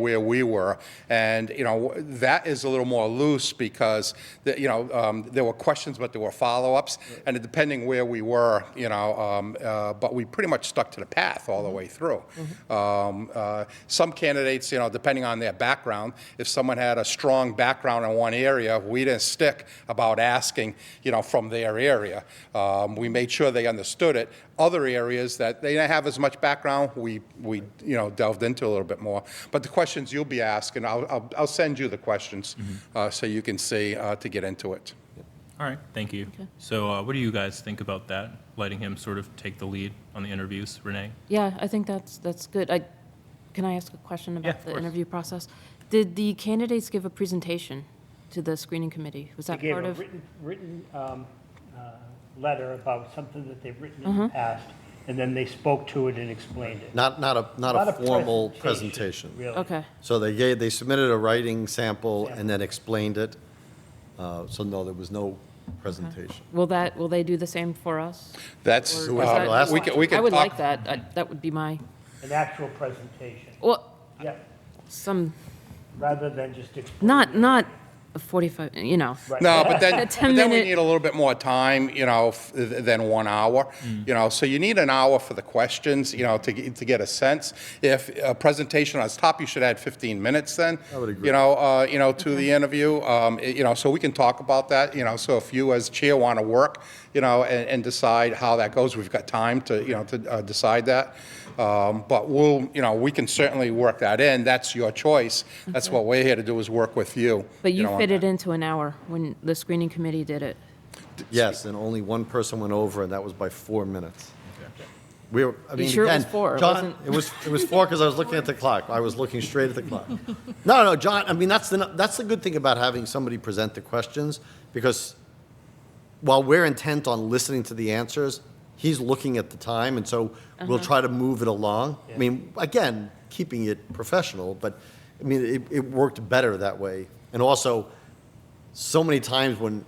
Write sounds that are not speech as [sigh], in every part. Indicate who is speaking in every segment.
Speaker 1: where we were. And, you know, that is a little more loose because, the- you know, um, there were questions, but there were follow-ups. And depending where we were, you know, um, uh, but we pretty much stuck to the path all the way through. Um, uh, Some candidates, you know, depending on their background, if someone had a strong background in one area, we didn't stick about asking, you know, from their area. Um, We made sure they understood it. Other areas that they didn't have as much background, we, we, you know, delved into a little bit more. But the questions you'll be asking, I'll, I'll, I'll send you the questions uh, so you can see uh, to get into it.
Speaker 2: All right, thank you. So uh, what do you guys think about that, letting him sort of take the lead on the interviews, Renee?
Speaker 3: Yeah, I think that's, that's good. I, can I ask a question
Speaker 2: Yeah, of
Speaker 3: about the
Speaker 2: course.
Speaker 3: interview process? Did the candidates give a presentation to the screening committee? Was
Speaker 4: They
Speaker 3: that
Speaker 4: gave
Speaker 3: part
Speaker 4: a
Speaker 3: of?
Speaker 4: written, written um, uh, letter about something that they've written
Speaker 3: Mm-hmm.
Speaker 4: in the past, and then they spoke to it and explained it.
Speaker 5: Not, not a, not a formal presentation.
Speaker 4: Really.
Speaker 3: Okay,
Speaker 5: So they gave, they submitted a writing sample and then explained it. Uh, So no, there was no presentation.
Speaker 3: will that, will they do the same for us?
Speaker 1: That's,
Speaker 3: Or is
Speaker 5: uh,
Speaker 3: that-
Speaker 5: last
Speaker 1: we can, we can
Speaker 3: I would
Speaker 1: talk-
Speaker 3: like that. I- That would be my,
Speaker 4: An actual presentation,
Speaker 3: well,
Speaker 4: yeah,
Speaker 3: some,
Speaker 4: rather than just. explaining
Speaker 3: not,
Speaker 4: it.
Speaker 3: not a 45, you know.
Speaker 4: Right.
Speaker 1: No, but then,
Speaker 3: A
Speaker 1: but
Speaker 3: 10
Speaker 1: then we
Speaker 3: minute-
Speaker 1: need a little bit more time, you know, f- than one hour.
Speaker 5: Mm.
Speaker 1: You know, so you need an hour for the questions, you know, to, get- to get a sense. If a presentation on top, you should add 15 minutes then.
Speaker 5: I would agree.
Speaker 1: You know, uh, you know, to the interview, um, i- you know, so we can talk about that, you know, so if you as chair want to work, you know, and, and decide how that goes, we've got time to, you know, to uh, decide that. Um, But we'll, you know, we can certainly work that in. That's your choice. That's what we're here to do is work with you.
Speaker 3: But you
Speaker 1: know, on
Speaker 3: fit
Speaker 1: that.
Speaker 3: it into an hour when the screening committee did it.
Speaker 5: Yes, and only one person went over, and that was by four minutes. We were, I mean,
Speaker 3: sure it was
Speaker 5: again,
Speaker 3: four? It
Speaker 5: John,
Speaker 3: wasn't-
Speaker 5: it was, it was four because I was looking at the clock. I was looking straight at
Speaker 3: [laughs]
Speaker 5: the clock. No, no, John, I mean, that's the, that's the good thing about having somebody present the questions because while we're intent on listening to the answers, he's looking at the time, and so we'll
Speaker 3: Uh-huh.
Speaker 5: try to move it along. I mean, again, keeping it professional, but I mean, it, it worked better that way. And also, so many times when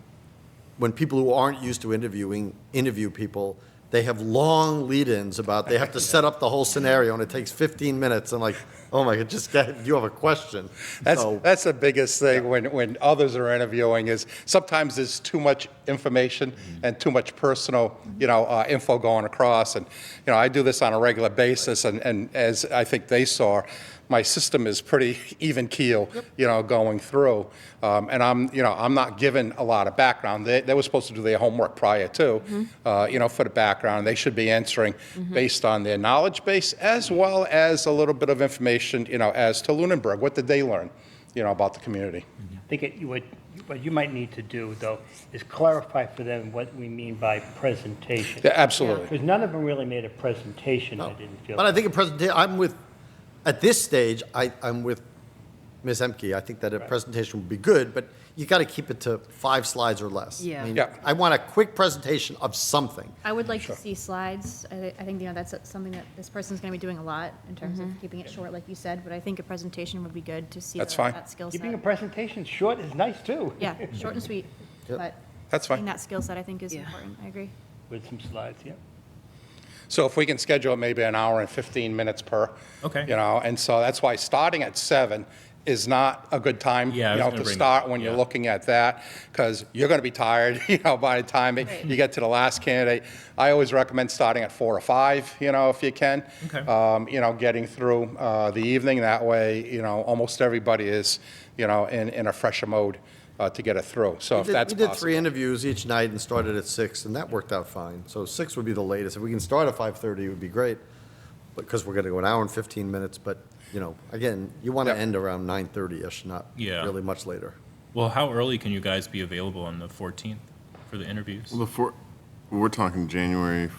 Speaker 5: when people who aren't used to interviewing interview people, they have long lead-ins about they have to set up the whole scenario, and it takes 15 minutes. And like, oh my god, just get, you have a question.
Speaker 1: That's,
Speaker 5: so,
Speaker 1: that's the biggest thing when, when others are interviewing is sometimes there's too much information and too much personal, you know, uh, info going across. And, you know, I do this on a regular basis and, and as I think they saw, my system is pretty [laughs] even keel, you know, going through. Um, and I'm, you know, I'm not given a lot of background. They, they were supposed to do their homework prior to, uh, you know, for the background. They should be answering based on their knowledge base as well as a little bit of information, you know, as to Lunenburg. What did they learn, you know, about the community?
Speaker 4: I think it- you would, what you might need to do, though, is clarify for them what we mean by presentation.
Speaker 1: Yeah, absolutely.
Speaker 4: Because none of them really made a presentation, I didn't feel.
Speaker 5: but I think a presentation. I'm with at this stage. I, I'm with Ms. Emke. I think that a presentation would be good, but you got to keep it to five slides or less.
Speaker 6: Yeah.
Speaker 5: I, mean,
Speaker 1: Yeah.
Speaker 5: I want a quick presentation of something.
Speaker 6: I would like to see slides. I, thi- I think, you know, that's something that this person's gonna be doing a lot in terms
Speaker 3: Mm-hmm.
Speaker 6: of keeping it short, like you said, but I think a presentation would be good to see
Speaker 1: That's
Speaker 6: the-
Speaker 1: fine.
Speaker 6: that skill
Speaker 4: Keeping a
Speaker 6: set.
Speaker 4: presentation short is nice, too. [laughs]
Speaker 6: Yeah, short and sweet,
Speaker 5: Yep.
Speaker 6: but
Speaker 1: That's
Speaker 6: seeing
Speaker 1: fine.
Speaker 6: that skill set, I think, is
Speaker 3: Yeah.
Speaker 6: important. I agree.
Speaker 4: With some slides, yeah.
Speaker 1: So if we can schedule maybe an hour and 15 minutes per.
Speaker 2: Okay.
Speaker 1: You know, and so that's why starting at seven is not a good time, you
Speaker 2: Yeah, I was
Speaker 1: know,
Speaker 2: gonna
Speaker 1: to
Speaker 2: bring-
Speaker 1: start when you're
Speaker 2: yeah.
Speaker 1: looking at that, because you're going to be tired, [laughs] you know, by the time
Speaker 6: Right.
Speaker 1: you get to the last candidate. I always recommend starting at four or five, you know, if you can.
Speaker 2: Okay.
Speaker 1: Um, You know, getting through uh, the evening, that way, you know, almost everybody is, you know, in, in a fresher mode uh, to get it through, so
Speaker 5: We
Speaker 1: if
Speaker 5: did-
Speaker 1: that's
Speaker 5: We did three
Speaker 1: possible.
Speaker 5: interviews each night and started at six, and that worked out fine. So six would be the latest. If we can start at five-thirty, it would be great, because we're gonna go an hour and fifteen minutes, but, you know, again, you wanna
Speaker 1: Yep.
Speaker 5: end around nine-thirty-ish, not
Speaker 2: Yeah.
Speaker 5: really much later.
Speaker 2: Well, how early can you guys be available on the 14th for the interviews?
Speaker 7: Well, the four, we're talking January,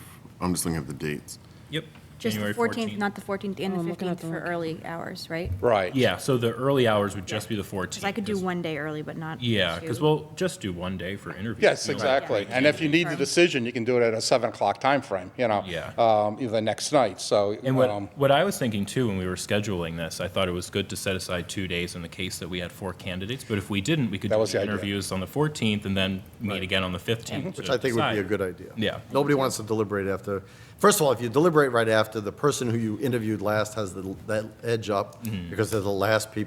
Speaker 7: I'm just looking at the dates.
Speaker 2: Yep.
Speaker 6: Just the
Speaker 2: January
Speaker 6: fourteenth, not the fourteenth and
Speaker 3: Oh,
Speaker 6: the
Speaker 3: I'm looking at
Speaker 6: fifteenth
Speaker 3: the
Speaker 6: for
Speaker 3: wrong
Speaker 6: early hours, right?
Speaker 1: Right.
Speaker 2: Yeah, so the early hours would just be the 14th.
Speaker 6: Because I could do
Speaker 2: 'cause-
Speaker 6: one day early, but not
Speaker 2: Yeah, because
Speaker 6: two.
Speaker 2: we'll just do one day for interviews.
Speaker 1: Yes,
Speaker 2: you know?
Speaker 1: exactly. And if you need the
Speaker 6: Confirm.
Speaker 1: decision, you can do it at a 7 o'clock timeframe, you know?
Speaker 2: Yeah.
Speaker 1: um, The next night, so.
Speaker 2: And what,
Speaker 1: um,
Speaker 2: what I was thinking too, when we were scheduling this, I thought it was good to set aside two days in the case that we had four candidates. But if we didn't, we could
Speaker 1: That
Speaker 2: do
Speaker 1: was the
Speaker 2: the
Speaker 1: idea. Mhm.
Speaker 2: interviews on the 14th and then meet again on the 15th.
Speaker 5: Which
Speaker 2: to
Speaker 5: I think would be a
Speaker 2: decide.
Speaker 5: good idea.
Speaker 2: Yeah.
Speaker 5: Nobody wants to deliberate after, First of all, if you
Speaker 2: Mm-hmm.
Speaker 5: deliberate right after, the person who you interviewed last has the, that edge up because they're the last people